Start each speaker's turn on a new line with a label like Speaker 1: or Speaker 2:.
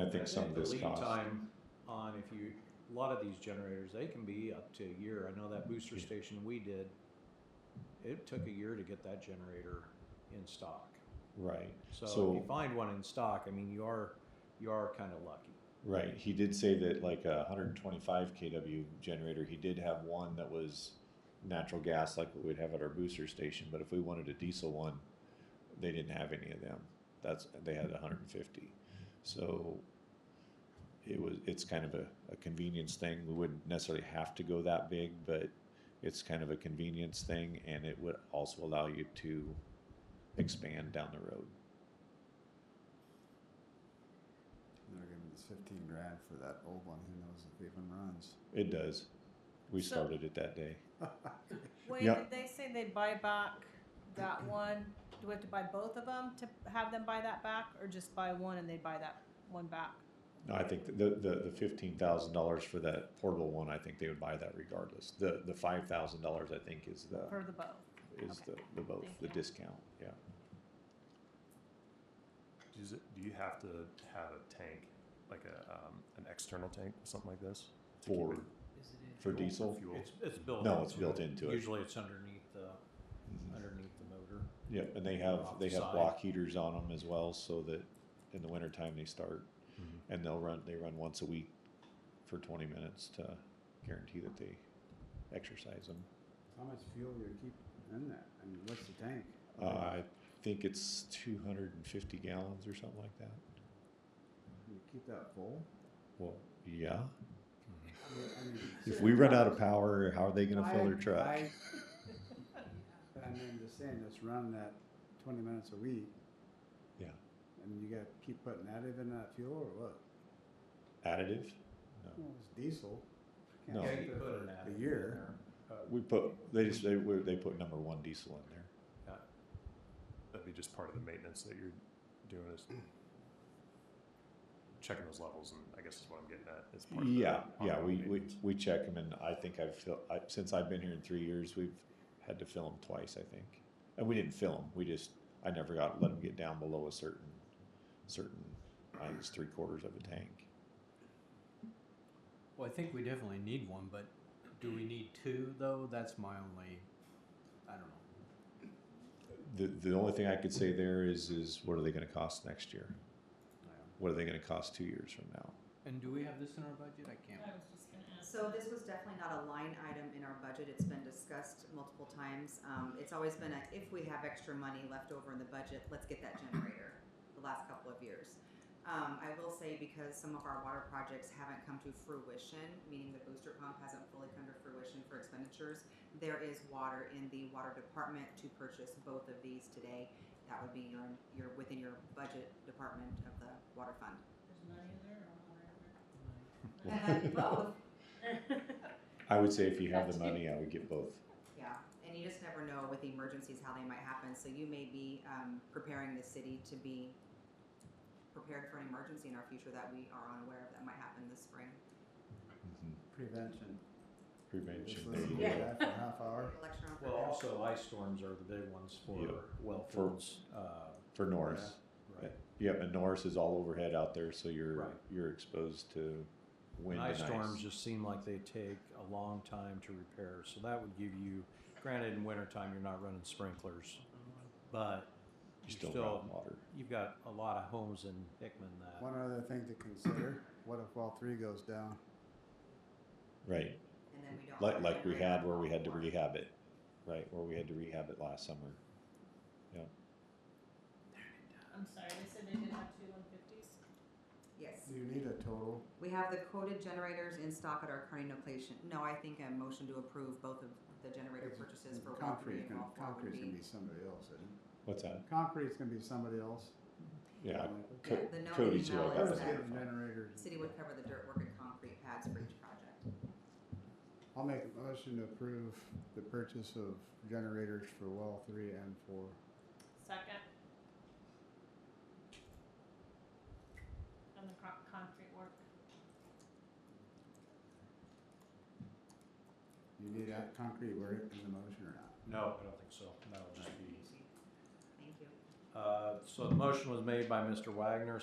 Speaker 1: I think some of this
Speaker 2: the lead
Speaker 1: cost.
Speaker 2: time on if you, a lot of these generators, they can be up to a year. I know that booster station we did, it took a year to get that generator in stock.
Speaker 1: Right.
Speaker 2: So if
Speaker 1: So-
Speaker 2: you find one in stock, I mean, you are, you are kind of lucky.
Speaker 1: Right, he did say that like a hundred and twenty-five KW generator, he did have one that was natural gas like what we'd have at our booster station, but if we wanted a diesel one, they didn't have any of them. That's, they had hundred and fifty. So it was, it's kind of a, a convenience thing. We wouldn't necessarily have to go that big, but it's kind of a convenience thing and it would also allow you to expand down the road.
Speaker 3: They're giving us fifteen grand for that old one, who knows if it even runs.
Speaker 1: It does. We
Speaker 4: So-
Speaker 1: started it that day.
Speaker 4: Wait,
Speaker 1: Yeah.
Speaker 4: did they say they'd buy back that one? Do we have to buy both of them to have them buy that back, or just buy one and they buy that one back?
Speaker 1: No, I think the, the, the fifteen thousand dollars for that portable one, I think they would buy that regardless. The, the five thousand dollars, I think, is the,
Speaker 4: For the both?
Speaker 1: is the, the both,
Speaker 4: Thank
Speaker 1: the
Speaker 4: you.
Speaker 1: discount, yeah.
Speaker 5: Does it, do you have to have a tank, like a, um, an external tank, something like this? to keep
Speaker 1: For,
Speaker 5: it
Speaker 1: for diesel?
Speaker 5: Fuel.
Speaker 2: It's, it's built.
Speaker 1: No, it's
Speaker 2: into
Speaker 1: built
Speaker 2: it.
Speaker 1: into it. Mm-hmm.
Speaker 2: Usually it's underneath the, underneath the motor.
Speaker 1: Yeah, and they have,
Speaker 2: Off
Speaker 1: they
Speaker 2: the
Speaker 1: have
Speaker 2: side.
Speaker 1: block heaters on them as well, so that in the wintertime they start.
Speaker 5: Mhm.
Speaker 2: Mm-hmm.
Speaker 1: And they'll run, they run once a week for twenty minutes to guarantee that they exercise them.
Speaker 3: How much fuel you keep in that? I mean, what's the tank?
Speaker 1: Uh, I think it's two hundred and fifty gallons or something like that.
Speaker 3: You keep that full?
Speaker 1: Well, yeah.
Speaker 3: I mean- I mean,
Speaker 1: If we run out of power, how are they gonna fill their
Speaker 3: I-
Speaker 1: truck?
Speaker 3: I- I mean, just saying, just run that twenty minutes a week.
Speaker 1: Yeah.
Speaker 3: And you gotta keep putting additive in that fuel or what?
Speaker 1: Additive? No.
Speaker 3: Well, It's diesel. Can't
Speaker 1: No.
Speaker 2: Yeah,
Speaker 3: keep
Speaker 2: you
Speaker 3: it
Speaker 2: put
Speaker 3: for
Speaker 2: an additive
Speaker 3: A
Speaker 2: in
Speaker 3: year.
Speaker 2: there. Uh,
Speaker 1: We put, they just, they, were- they put number one diesel in there.
Speaker 2: yeah.
Speaker 5: That'd be just part of the maintenance that you're doing is checking those levels and I guess is what I'm getting at. It's part of the
Speaker 1: Yeah, yeah,
Speaker 5: ongoing
Speaker 1: we, we,
Speaker 5: maintenance.
Speaker 1: we check them and I think I've filled, I, since I've been here in three years, we've had to fill them twice, I think. And we didn't fill them, we just, I never got, let them get down below a certain, certain, I think it's three quarters of a tank.
Speaker 6: Well, I think we definitely need one, but do we need two though? That's my only, I don't know.
Speaker 1: The, the only thing I could say there is, is what are they gonna cost next year? What are they gonna cost two years from now?
Speaker 6: And do we have this in our budget? I can't.
Speaker 4: was just gonna ask.
Speaker 7: So this was definitely not a line item in our budget. It's been discussed multiple times. Um, it's always been a, if we have extra money left over in the budget, let's get that generator, the last couple of years. Um, I will say because some of our water projects haven't come to fruition, meaning the booster pump hasn't fully come to fruition for expenditures, there is water in the water department to purchase both of these today. That would be your, your, within your budget department of the water fund. Both.
Speaker 1: I would say if you have the money, I would get both.
Speaker 7: Yeah, and you just never know with emergencies how they might happen. So you may be um, preparing the city to be prepared for an emergency in our future that we are unaware of that might happen this spring.
Speaker 1: Mhm.
Speaker 3: Prevention. Just
Speaker 1: Prevention, there
Speaker 3: listen
Speaker 1: you
Speaker 3: to
Speaker 1: go.
Speaker 3: that for a half hour.
Speaker 7: Election on
Speaker 2: Well,
Speaker 7: prevention.
Speaker 2: also ice storms are the big ones for
Speaker 1: Yeah.
Speaker 2: well
Speaker 1: For-
Speaker 2: fields, uh,
Speaker 1: For Norris.
Speaker 2: right?
Speaker 1: Yep, and Norris is all overhead out there, so you're
Speaker 2: Right.
Speaker 1: you're exposed to wind
Speaker 2: Ice
Speaker 1: and
Speaker 2: storms just seem like they take a long time to repair, so that would give you, granted in wintertime, you're not running sprinklers, but
Speaker 1: You
Speaker 2: you
Speaker 1: still,
Speaker 2: still,
Speaker 1: got water.
Speaker 2: you've got a lot of homes in Hickman that,
Speaker 3: One other thing to consider, what if all three goes down?
Speaker 1: Right.
Speaker 7: and then we don't
Speaker 1: Like
Speaker 7: have a
Speaker 1: like we
Speaker 7: generator
Speaker 1: had where we had to
Speaker 7: anymore.
Speaker 1: rehab it. Right, where we had to rehab it last summer.
Speaker 8: I'm sorry, they said they did have two one fifties?
Speaker 7: Yes,
Speaker 3: Do you need a total?
Speaker 7: we have the quoted generators in stock at our current location. No, I think a motion to approve both of the generator
Speaker 3: It's-
Speaker 7: purchases for well three
Speaker 3: Concrete,
Speaker 7: and well four would
Speaker 3: concrete's gonna
Speaker 7: be.
Speaker 3: be somebody else, isn't it?
Speaker 1: What's that?
Speaker 3: Concrete's gonna be somebody else.
Speaker 1: Yeah.
Speaker 3: Like,
Speaker 1: Co-
Speaker 7: Yeah, the known
Speaker 1: Cody's who I
Speaker 7: email
Speaker 1: got
Speaker 7: is
Speaker 3: Let's
Speaker 1: that
Speaker 3: get
Speaker 7: that
Speaker 1: from.
Speaker 3: generators.
Speaker 7: city would cover the dirt work and concrete pads for each project.
Speaker 3: I'll make a motion to approve the purchase of generators for well three and four.
Speaker 8: Second. And the cro- concrete work.
Speaker 3: You need that concrete work in the motion or not?
Speaker 2: no, I don't think so, that'll just be.
Speaker 7: Thank you.
Speaker 2: Uh, so the motion was made by Mr. Wagner,